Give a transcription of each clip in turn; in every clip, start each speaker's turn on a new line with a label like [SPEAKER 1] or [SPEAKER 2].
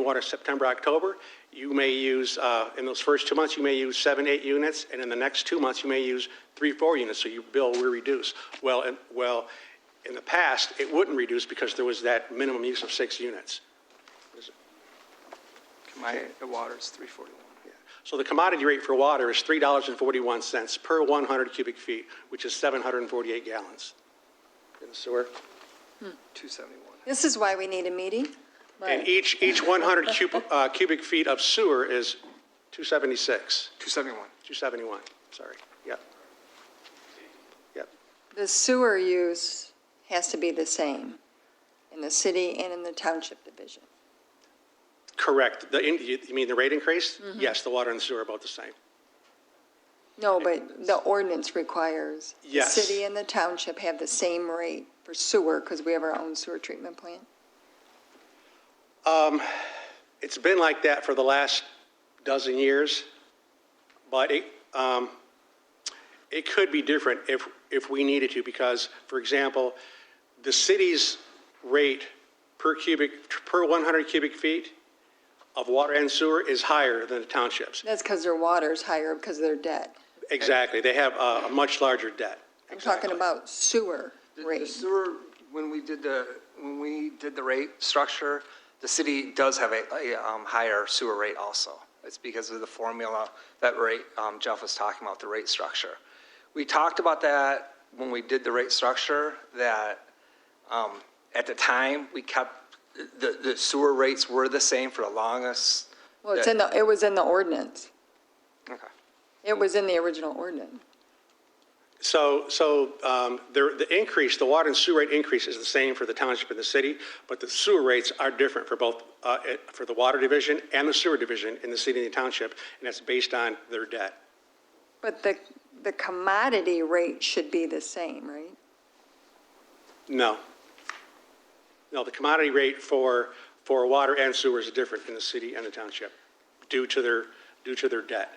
[SPEAKER 1] water September, October, you may use, uh, in those first two months, you may use seven, eight units, and in the next two months, you may use three, four units, so you bill, we reduce. Well, in- well, in the past, it wouldn't reduce because there was that minimum use of six units.
[SPEAKER 2] My, the water's 341.
[SPEAKER 1] So the commodity rate for water is $3.41 per 100 cubic feet, which is 748 gallons. In the sewer?
[SPEAKER 2] 271.
[SPEAKER 3] This is why we need a meeting.
[SPEAKER 1] And each, each 100 cubic, uh, cubic feet of sewer is 276,
[SPEAKER 2] 271.
[SPEAKER 1] 271, sorry, yep. Yep,
[SPEAKER 3] The sewer use has to be the same in the city and in the township division.
[SPEAKER 1] correct. The, in- you you mean the rate increase? Yes, the water and sewer are both the same.
[SPEAKER 3] No, but the ordinance requires.
[SPEAKER 1] Yes.
[SPEAKER 3] The city and the township have the same rate for sewer because we have our own sewer treatment plant.
[SPEAKER 1] It's been like that for the last dozen years, but it, um, it could be different if, if we needed to, because, for example, the city's rate per cubic, per 100 cubic feet of water and sewer is higher than the township's.
[SPEAKER 3] That's because their water's higher because they're debt.
[SPEAKER 1] Exactly, they have a, a much larger debt.
[SPEAKER 3] I'm talking about sewer
[SPEAKER 2] The- The
[SPEAKER 3] rate.
[SPEAKER 2] sewer, when we did the, when we did the rate structure, the city does have a, a um, higher sewer rate also. It's because of the formula, that rate, um, Jeff was talking about, the rate structure. We talked about that when we did the rate structure, that um, at the time, we kept, the, the sewer rates were the same for the longest.
[SPEAKER 3] Well, it's in the, it was in the ordinance.
[SPEAKER 2] Okay.
[SPEAKER 3] It was in the original ordinance.
[SPEAKER 1] So, so um, there- the increase, the water and sewer rate increase is the same for the township and the city, but the sewer rates are different for both, uh, it- for the water division and the sewer division in the city and the township, and that's based on their debt.
[SPEAKER 3] But the, the commodity rate should be the same, right?
[SPEAKER 1] No. No, the commodity rate for, for water and sewer is different in the city and the township due to their, due to their debt.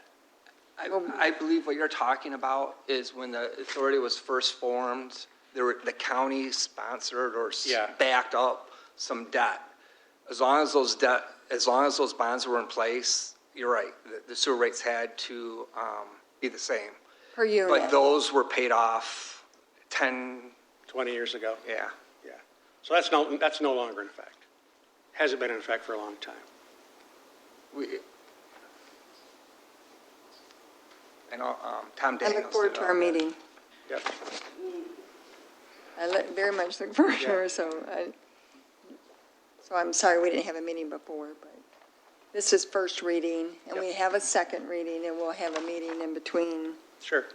[SPEAKER 2] I, I believe what you're talking about is when the authority was first formed, there were, the county sponsored or s-
[SPEAKER 1] Yeah.
[SPEAKER 2] backed up some debt. As long as those debt, as long as those bonds were in place, you're right, the- the sewer rates had to, um, be the same.
[SPEAKER 3] Per
[SPEAKER 2] But
[SPEAKER 3] unit.
[SPEAKER 2] those were paid off ten,
[SPEAKER 1] 20 years ago,
[SPEAKER 2] yeah.
[SPEAKER 1] yeah. So that's no, that's no longer in effect. Hasn't been in effect for a long time.
[SPEAKER 2] We, I know, um, Tom
[SPEAKER 3] I
[SPEAKER 2] Daniels.
[SPEAKER 3] look forward
[SPEAKER 2] did
[SPEAKER 3] to our
[SPEAKER 2] all that.
[SPEAKER 3] meeting.
[SPEAKER 1] Yep.
[SPEAKER 3] I look- very much look forward to
[SPEAKER 1] Yeah.
[SPEAKER 3] her, so I, so I'm sorry we didn't have a meeting before, but this is first reading, and we
[SPEAKER 1] Yep.
[SPEAKER 3] have a second reading, and we'll have a meeting in between
[SPEAKER 1] Sure.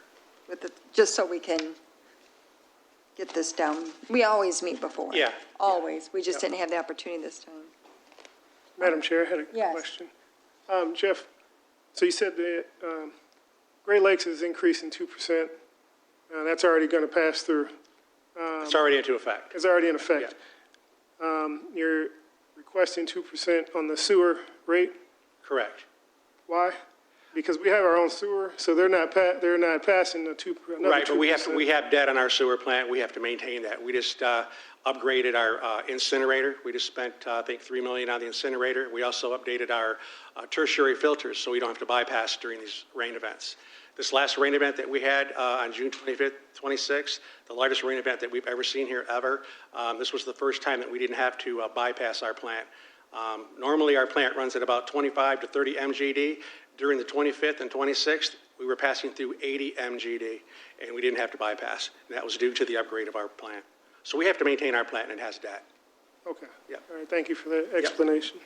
[SPEAKER 3] with the, just so we can get this down. We always meet before.
[SPEAKER 1] Yeah.
[SPEAKER 3] Always. We just didn't have the opportunity this time.
[SPEAKER 4] Madam Chair, I had
[SPEAKER 3] Yes.
[SPEAKER 4] a question. Um, Jeff, so you said that um, Great Lakes is increasing 2%, and that's already going to pass through,
[SPEAKER 1] It's already into effect.
[SPEAKER 4] it's already in effect. Um, You're requesting 2% on the sewer rate,
[SPEAKER 1] Correct.
[SPEAKER 4] why? Because we have our own sewer, so they're not, pa- they're not passing the 2, another 2%.
[SPEAKER 1] Right, but we have, we have debt on our sewer plant, we have to maintain that. We just uh, upgraded our uh, incinerator, we just spent, uh, I think, 3 million on the incinerator. We also updated our uh, tertiary filters, so we don't have to bypass during these rain events. This last rain event that we had uh, on June 25th, 26th, the largest rain event that we've ever seen here ever, um, this was the first time that we didn't have to uh, bypass our plant. Um, Normally, our plant runs at about 25 to 30 MGD. During the 25th and 26th, we were passing through 80 MGD, and we didn't have to bypass. And that was due to the upgrade of our plant. So we have to maintain our plant, and it has debt.
[SPEAKER 4] Okay.
[SPEAKER 1] Yep.
[SPEAKER 4] All right, thank you for that explanation.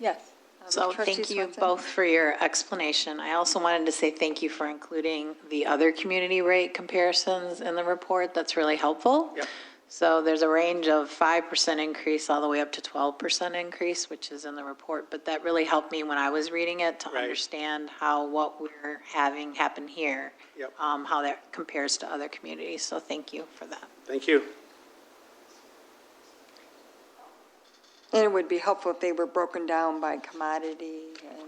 [SPEAKER 3] Yes. Um,
[SPEAKER 5] So
[SPEAKER 3] trustee
[SPEAKER 5] thank you
[SPEAKER 3] Swenson?
[SPEAKER 5] both for your explanation. I also wanted to say thank you for including the other community rate comparisons in the report. That's really helpful.
[SPEAKER 1] Yep.
[SPEAKER 5] So there's a range of 5% increase all the way up to 12% increase, which is in the report. But that really helped me when I was reading it to
[SPEAKER 1] Right.
[SPEAKER 5] understand how what we're having happen here.
[SPEAKER 1] Yep.
[SPEAKER 5] um, How that compares to other communities. So thank you for that.
[SPEAKER 1] Thank you.
[SPEAKER 3] And it would be helpful if they were broken down by commodity and,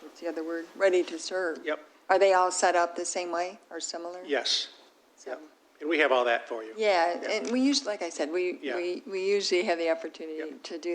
[SPEAKER 3] what's the other word? Ready to serve.
[SPEAKER 1] Yep.
[SPEAKER 3] Are they all set up the same way or similar?
[SPEAKER 1] Yes.
[SPEAKER 3] So-
[SPEAKER 1] And we have all that for you.
[SPEAKER 3] Yeah, and we usually, like I said, we,
[SPEAKER 1] Yeah.
[SPEAKER 3] we we usually have the opportunity to do